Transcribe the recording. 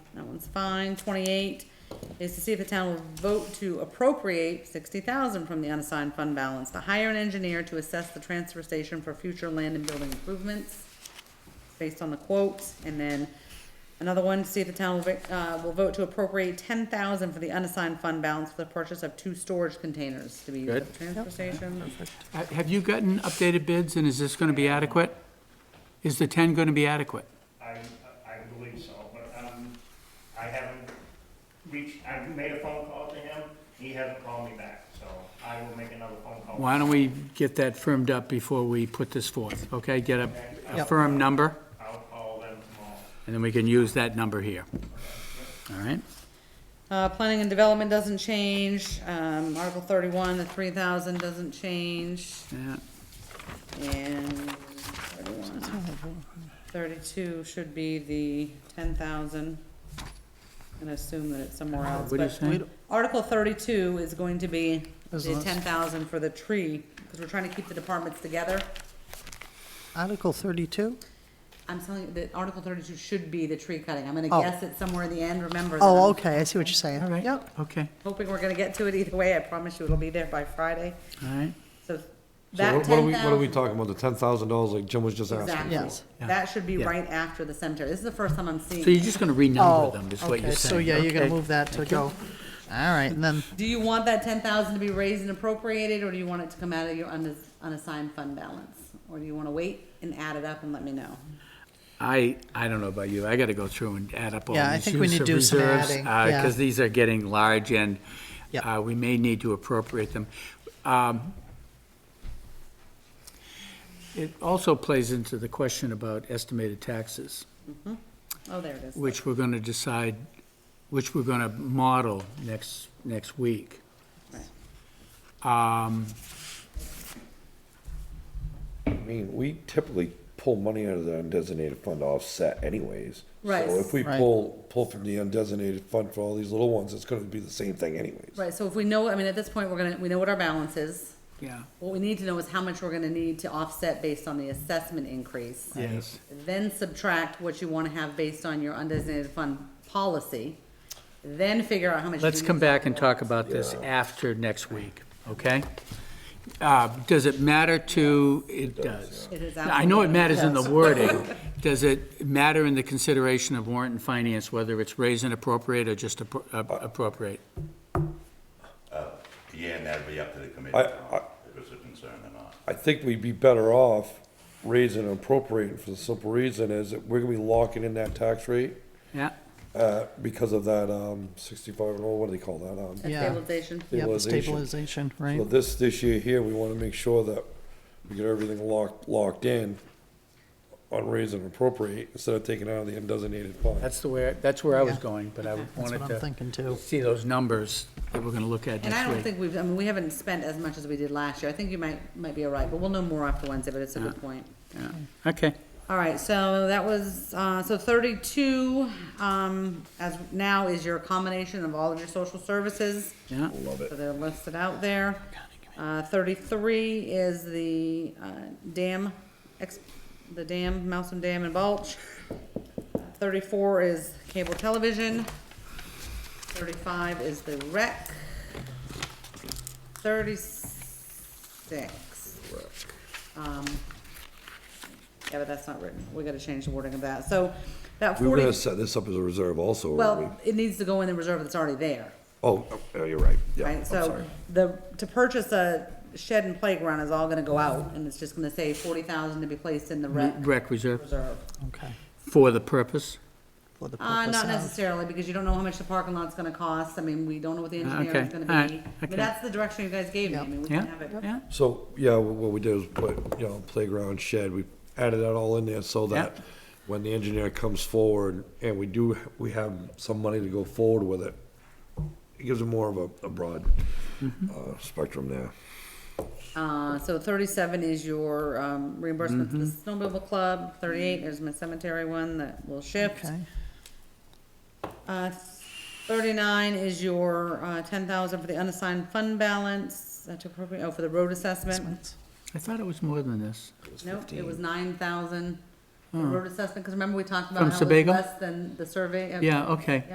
That one's fine. Twenty-eight is to see if the town will vote to appropriate sixty thousand from the unassigned fund balance to hire an engineer to assess the transfer station for future land and building improvements based on the quotes, and then another one, to see if the town will, vic- uh, will vote to appropriate ten thousand for the unassigned fund balance for the purchase of two storage containers to be used at the transfer station. Uh, Have you gotten updated bids, and is this gonna be adequate? Is the ten gonna be adequate? I, I believe so, but, um, I haven't reached, I made a phone call to him, he hasn't called me back, so I will make another phone call. Why don't we get that firmed up before we put this forth, okay? Get a, a Yep. firm number, I'll call them tomorrow. and then we can use that number here. All right? Uh, planning and development doesn't change, um, Article thirty-one, the three thousand doesn't change, Yeah, and 31. thirty-two should be the ten thousand. And assume that it's somewhere Uh, else, What do you but- say? We don't- Article thirty-two is going to be Is the this- ten thousand for the tree, because we're trying to keep the departments together. Article 32? I'm telling you, that Article thirty-two should be the tree cutting. I'm gonna Oh. guess it's somewhere in the end, remember that. Oh, I'm okay, I see what you're saying. all right, Yep, okay, Hoping we're gonna get to it either way. I promise you it'll be there by Friday. all right. So So that what- what are ten we, what are we thousand. talking about? The ten thousand dollars like Jim was just asking? Exactly. Yes. Yeah. That should be Yeah. right after the cemetery. This is the first time I'm So you're seeing. it. just gonna renumber oh, them, is what okay, you're saying? so yeah, you're gonna okay. move that to Thank you. go. All right, and then, Do you want that ten thousand to be raised and appropriated, or do you want it to come out of your unass- unassigned fund balance? Or do you wanna wait and add it up and let me know? I, I don't know about you, I gotta go through and add up all Yeah, I these think we use need of to do some reserves, adding, yeah. because these are getting large, and Yep. uh, we may need to appropriate them. Um, It also plays into the question about estimated taxes, Oh, there it is. which we're gonna decide, which we're gonna model next, next week. I mean, we typically pull money out of the undesignated fund to offset anyways. Right. So if we Right. pull, pull from the undesignated fund for all these little ones, it's gonna be the same thing anyways. Right, so if we know, I mean, at this point, we're gonna, we know what our balance is. Yeah. What we need to know is how much we're gonna need to offset based on the assessment increase. Yes. Then subtract what you wanna have based on your undesignated fund policy, then figure out how much. Let's you come need to- back and talk about this after next week, okay? Uh, Does it matter to, it does. It is I know it absolutely- matters in the wording. Does it matter in the consideration of warrant and finance, whether it's raise and appropriate or just appro- ap- appropriate? Yeah, and that'd be up to the committee, I- now, if it's a concern or not. I think we'd be better off raising and appropriating for the simple reason is that we're gonna be locking in that tax rate, Yeah, uh, because of that, um, sixty-five, or what do they call that, um? That Yeah. Stabilization. yep, Stabilization. stabilization, right? So this, this year here, we wanna make sure that we get everything locked, locked in on raise and appropriate instead of taking it out of the undesignated fund. that's the way, that's where I was Yeah. going, but I That's what wanted I'm thinking to too. see those numbers that we're gonna look at And I don't next week. think we've, I mean, we haven't spent as much as we did last year. I think you might, might be all right, but we'll know more after Wednesday, but it's a good point. Yeah. Okay, All right, so that was, uh, so thirty-two, um, as now is your combination of all of your social services. yeah, So they're listed out there. Uh, thirty-three is the, uh, dam, ex, the dam, Mousom Dam and Balch. Thirty-four is cable television. Thirty-five is the rec. Thirty-six. Um, yeah, but that's not written. We gotta change the wording of that. So that We were forty, gonna set this up as a reserve also, weren't we? well, it needs to go in the reserve that's already there Oh, oh, you're right, yeah, I'm right? So sorry. the, to purchase a shed and playground is all gonna go out, and it's just gonna say forty thousand to be placed in the rec rec reserve reserve. Okay. for the purpose. For the Uh, purpose not of- necessarily, because you don't know how much the parking lot's gonna cost, I mean, we don't know what the engineer Ah, Okay, is gonna alright, be. I okay. mean, that's the direction you guys gave me, I mean, we Yeah, can have it. yeah, So, yeah, wh- what we did was put, you know, playground shed, we added that all in there so that Yep. when the engineer comes forward and we do, we have some money to go forward with it, it gives them more of a, a broad, uh, spectrum there. Uh, so thirty-seven is your, um, reimbursement to the Mm-hmm. snowmobile club, thirty-eight is my cemetery one that will shift. Okay, Uh, thirty-nine is your, uh, ten thousand for the unassigned fund balance, that's appropriate, oh, for the road assessment. that's- I thought it was more than this. Nope, it was nine thousand the road assessment, because remember we talked From about how it's Sebago? less than the survey? of- Yeah, okay.